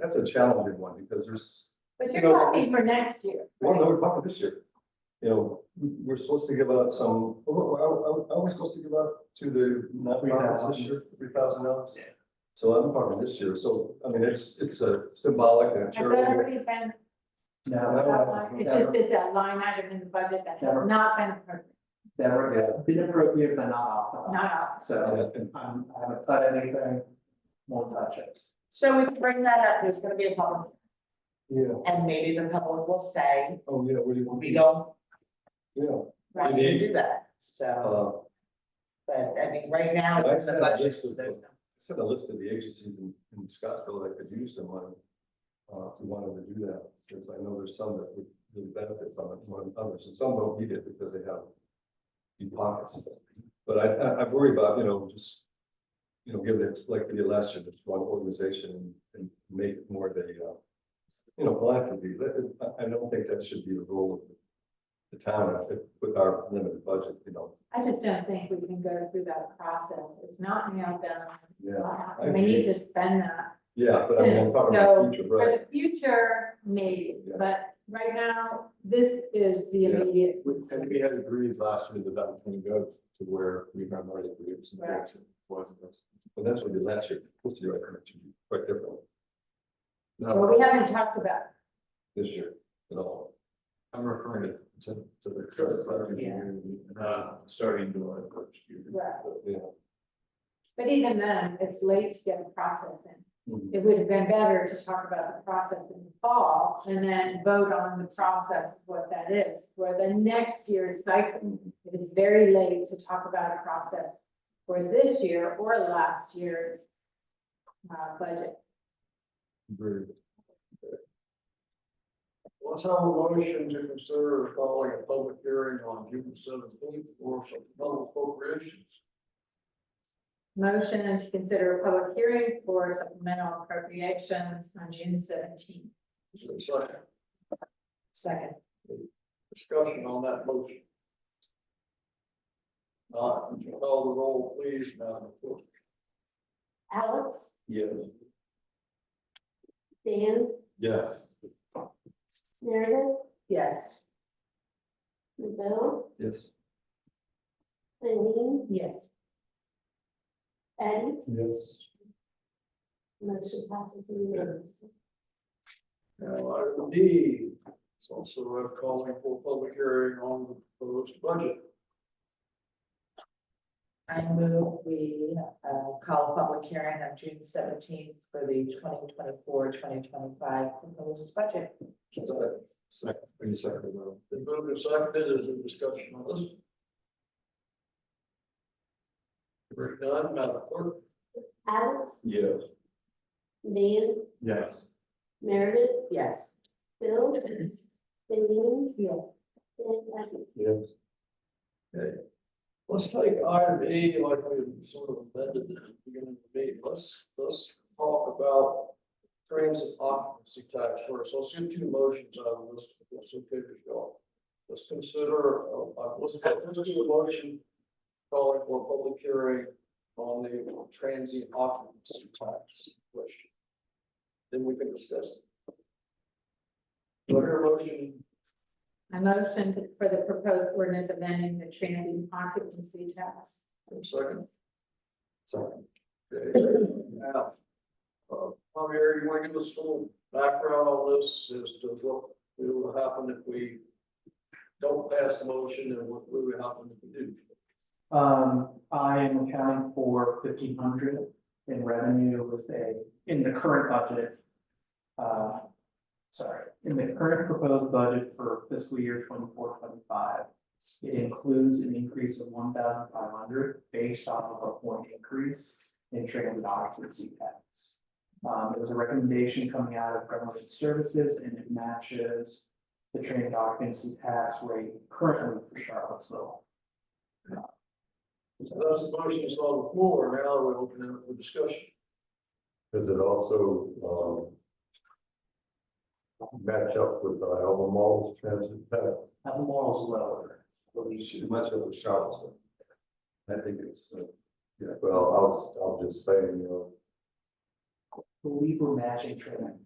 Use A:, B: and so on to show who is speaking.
A: that's a challenging one, because there's,
B: But
A: You
B: you're
A: know-
B: talking for next year.
A: well, no, we're talking this year. You know, we- we're supposed to give out some, oh, are, are, are we supposed to give out to the nonprofits this year, three thousand dollars?
C: Yeah.
A: So I'm talking this year, so, I mean, it's, it's a symbolic and a
B: Has that
A: charitable.
B: already been
C: No, that was,
B: outlined? It's just
C: never,
B: that that line item in the budget that has
C: Never.
B: not been approved,
C: never, been appropriate, but not off.
B: not out.
C: So,
A: And- and-
C: um, I haven't cut anything, won't touch it.
D: So we can bring that up, there's gonna be a public,
A: Yeah,
D: and maybe the public will say,
A: oh, yeah, what do you want?
D: we don't,
A: Yeah.
D: right,
A: Indeed.
D: do that, so,
A: Uh,
D: but I mean, right now,
A: I
D: it's in
A: said
D: the budget,
A: this
D: so
A: was-
D: there's no.
A: sent a list of the agencies in, in Scottsville that could use the money. Uh, if we wanted to do that, because I know there's some that would really benefit from it more than others, and some don't need it because they have deep pockets. But I, I, I worry about, you know, just, you know, giving it like we did last year, just one organization and make it more of a, uh, you know, philanthropy. That- I, I don't think that should be the role of the town I think, with our limited budget, you know.
B: I just don't think we can go through that process. It's not nailed down.
A: Yeah, I
B: We need
A: agree.
B: to spend that.
A: yeah, but I'm talking about
B: So-
A: the future,
B: For
A: right?
B: the future, maybe,
A: Yeah.
B: but right now, this is the
A: Yeah.
B: immediate.
E: And we had agreed last year that that was gonna go to where we remember already agreed some
B: Right.
E: direction, wasn't it?
A: Well, that's what it is actually, supposed to be right, correct, quite different.
B: Well,
E: No,
B: we haven't talked about,
A: this year at all.
E: I'm referring to, to to the.
A: Just,
E: current
D: yeah.
E: year, Uh, starting to our first year.
B: Right.
A: Yeah.
B: but even then, it's late to get a process in.
A: Mhm.
B: it would have been better to talk about the process in the fall and then vote on the process, what that is, for the next year's cycle. It is very late to talk about a process for this year or last year's uh, budget.
E: Very good.
F: Let's have a motion to consider calling a public hearing on June seventeenth for some public appropriations.
B: Motion to consider a public hearing for supplemental appropriations on June seventeenth.
F: Is there a second
B: Second.
F: discussion on that motion? Not, would you call the roll, please, Madam Clerk?
D: Alex,
A: Yes.
D: Dan,
A: Yes.
D: Meredith? Yes.
G: Bill,
A: Yes.
G: Eileen,
B: Yes.
G: Eddie,
A: Yes.
G: motion passes unanimously.
F: Now, item D, it's also a calling for public hearing on the proposed budget.
D: I move we, uh, call a public hearing on June seventeenth for the 2024-2025 proposed budget.
F: Second,
A: Second, are you second, Ron?
F: the move is seconded, is there discussion on this? Hearing none, Madam Clerk?
G: Alex,
A: Yes.
G: Dan,
A: Yes.
G: Meredith,
D: Yes.
G: Bill, Eileen,
B: Yes.
G: and Eddie.
A: Yes.
F: Let's take item E, like we sort of amended it at the beginning of the meeting, let's, let's talk about transit occupancy tax first, so I'll see two motions out of this, that's okay with y'all. Let's consider, uh, uh, let's, let's do a motion calling for a public hearing on the transient occupancy tax question. Then we can discuss it. Do I hear a motion
B: I motioned for the proposed ordinance amending the transient occupancy tax.
F: One second. Second. Okay, now, uh, Javier, you want to give us a little background on this as to what will happen if we don't pass the motion and what will happen if we do?
C: Um, I am accounting for fifteen hundred in revenue with a, in the current budget. Uh, sorry, in the current proposed budget for fiscal year 24-25, It includes an increase of one thousand five hundred based off of a point increase in transit occupancy tax. Um, it was a recommendation coming out of government services and it matches the transit occupancy tax rate currently for Charlottesville.
F: So that's the motion that's on the floor, now we're opening up for discussion.
A: Does it also, um, match up with the Alma Mall's transit path?
C: have the morals lower.
A: Much of the Charlottesville. I think it's, uh, yeah, well, I was, I was just saying, you know,
C: Believe we're matching trend.